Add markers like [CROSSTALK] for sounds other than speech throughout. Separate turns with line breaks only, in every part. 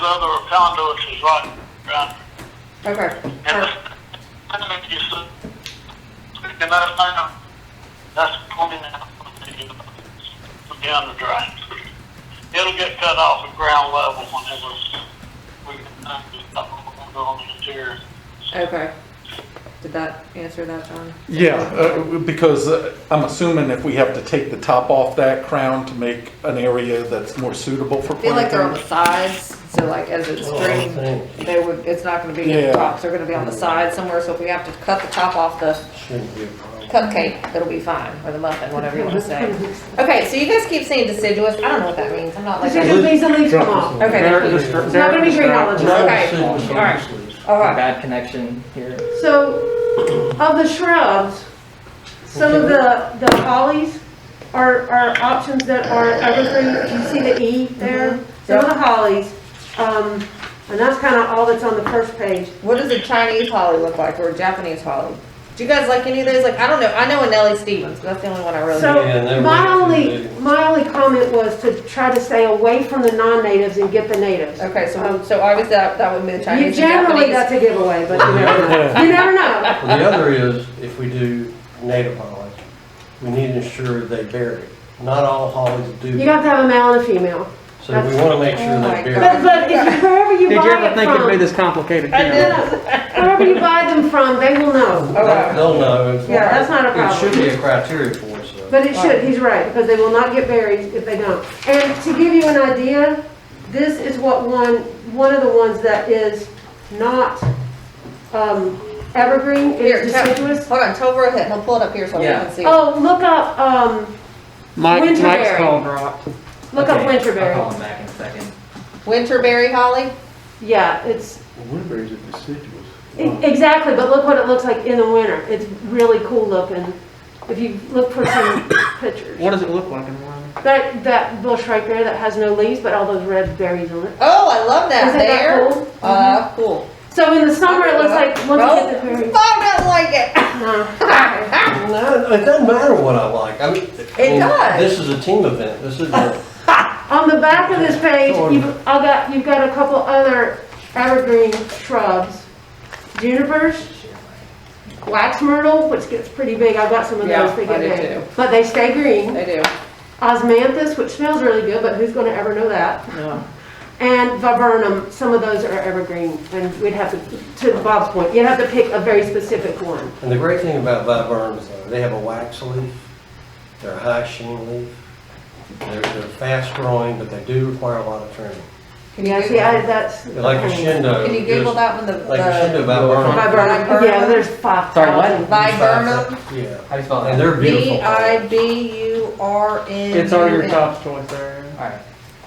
the other conduits is right, right.
Okay.
And
Uh,
this, uh, I mean, you said, and that's not, that's pointing out the, down the drain. It'll get cut off at ground level whenever we can, uh, go on the interior.
Okay. Did that answer that, John?
Yeah, uh, because uh, I'm assuming if we have to take the top off that crown to make an area that's more suitable for
I feel like they're on the
planting.
sides, so like as it's
Oh, I
draining,
think-
they would, it's not gonna be in the
Yeah.
top, they're gonna be on the side somewhere, so if we have to cut the top off the
Shouldn't be a problem.
cupcake, it'll be fine, or the muffin, whatever you wanna say. Okay, so you guys keep saying deciduous, I don't know what that means, I'm not like,
It's just the leaves, the leaves come off.
okay,
They're
thank you.
distra-
It's not gonna be
they're
greenhouses.
distracted.
Okay, all right. Alright,
Bad connection here.
So, of the shrubs, some of the, the hollies are, are options that are evergreen, you see the E there?
Mm-hmm.
Some of the hollies, um, and that's kinda all that's on the first page.
what does a Chinese holly look like, or a Japanese holly? Do you guys like any of those, like, I don't know, I know a Nellie Stevens, but that's the only one I really.
Yeah, and
So,
they're
my
really
only,
big.
my only comment was to try to stay away from the non-natives and get the natives.
Okay, so, so obviously that, that would be the
Um, You
Chinese and
generally,
Japanese.
that's a giveaway,
[LAUGHS]
but you never know. You never know.
Well, The other is, if we do native holly, we need to ensure they bury. Not all hollies do.
You have to have a male and a female.
So we want to make sure
Oh my
they bury.
But, but if you- wherever you
Did
buy
you
it from.
ever think it'd be this complicated?
I
Karen?
Wherever you buy them from, they will know.
Okay.
They'll know.
Yeah, that's not a
It should
problem.
be a criteria for us, though.
But it should, he's right, because they will not get buried if they don't. And to give you an idea, this is what one, one of the ones that is not, um, evergreen, it
Here,
is
tell-
deciduous.
hold on, tell Rohit, and he'll pull it up here so we
Yeah.
can see.
Oh, look up, um,
Mike, Mike's
Winterberry.
call dropped.
look up
Okay, Uh-huh. I'll
winterberry.
call him back in a second.
Winterberry holly?
Yeah, it's,
Woodbury's are deciduous.
e- exactly, but look what it looks like in the winter. It's really cool looking. If you look for some pictures.
What does it look like in the morning?
That, that bush right there that has no leaves, but all those red berries on it.
Oh, I love that
Isn't that
there.
cool?
Uh, cool. Oh,
So in the summer, it looks like, once you get the berries.
I don't like it.
No.
No, it doesn't matter what I like. I mean,
It
and
does.
This is a team event. This is a,
On the back of this page, you've, I got, you've got a couple other evergreen shrubs. Junipers, wax myrtle, which gets pretty big. I've got some of
Yeah,
those that
I
get
do
big.
too.
But they stay green.
They do.
Osmanthus, which smells really good, but who's gonna ever know that?
No.
And viburnum, some of those are evergreen, and we'd have to, to Bob's point, you'd have to pick a very specific one.
and the great thing about viburnums, though, they have a wax leaf, they're a high sheen leaf, they're, they're fast growing, but they do require a lot of trimming.
Can you
Yeah, see,
Google,
I, that's.
They're Like a shindo.
can you Google
just-
that one, the,
Like a shindo
the
viburnum.
Viburnum, yeah, there's five
Sorry, what?
thousand.
viburnum?
Yeah,
How do you spell
and
that?
they're beautiful.
V I B U R N.
It's already your top choice there.
Alright.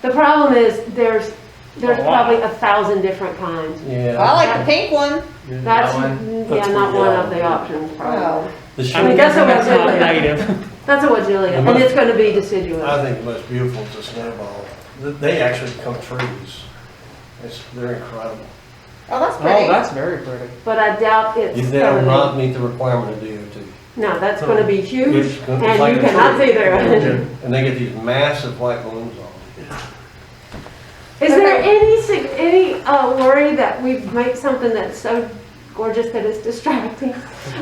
The problem is, there's, there's
A lot.
probably a thousand different kinds.
I
Yeah.
like the pink one.
That's,
one?
yeah,
That's
not
what-
one of the options, probably.
Wow.
The
I mean,
shindo,
that's what
That's
we're
not
doing.
native.
That's a Wazilia, and it's gonna be deciduous.
I think the most beautiful is the snowball. Th- They actually become trees. It's, they're incredible.
Oh, that's
Oh,
pretty.
that's very pretty.
But I doubt it's
You- They will
gonna
not meet the requirement of DOT.
be, no, that's gonna be huge,
It's
and
gonna- it's like
you
a
cannot
tree.
see through it.
And they get these massive white balloons on them.
Is there any, sig- any uh, worry that we make something that's so gorgeous that it's distracting?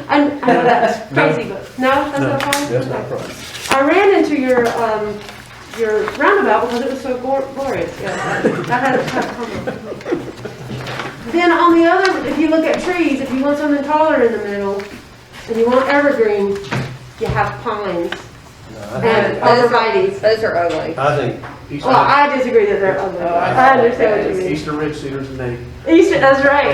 I, I know that's crazy, but, no, that's not a problem?
That's not a
Okay.
problem.
I ran into your, um, your roundabout because it was so glor- glorious, yeah. I had a tough time. Then on the other, if you look at trees, if you want something taller in the middle, and you want evergreen, you have pines
No, I
and
think-
arborvitae's.
Those are ugly.
I think,
Easter-
Well, I disagree that they're ugly. Oh, I understand what you mean.
Eastern Red Cedar's the name.
East, that's right.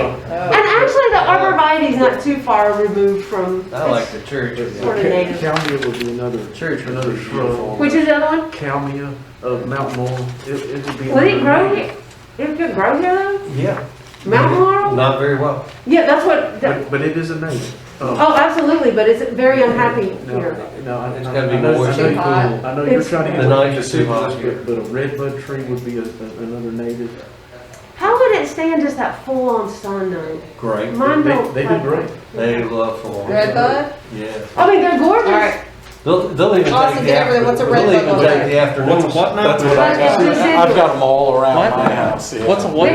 And
Oh,
actually, the arborvitae's not too far removed from,
I like the church.
Sort of native.
Calmia would be another,
Church was
another
beautiful.
shrub.
which is the other one?
Calmia of Mount Mole, it, it would be.
Would it
another
grow
name.
here? It could grow here though?
Yeah,
Mountain laurel?
Not very well.
Yeah, that's what, that-
but, but it is a name.
Oh, absolutely, but it's very unhappy here.
No, no, I.
It's
I-
gotta
I
be
know-
more
I know
than
you-
cool.
I know you're
It's-
trying to.
The
get
night
to
is too hot
deciduous,
here.
But but a redbud tree would be a, a- another native.
How would it stand just that full-on sun though?
Great.
Mine
They-
don't.
They do great.
They love full.
Red bud?
Yeah.
I mean, they're
All right.
gorgeous.
They'll, they'll even
Austin,
take the
get over there.
afternoon.
What's a red
They'll
bud
even
over
take
there?
the afternoon.
What's a what now?
That's what I got. I've got them all around
What?
my house, yeah.
What's a what?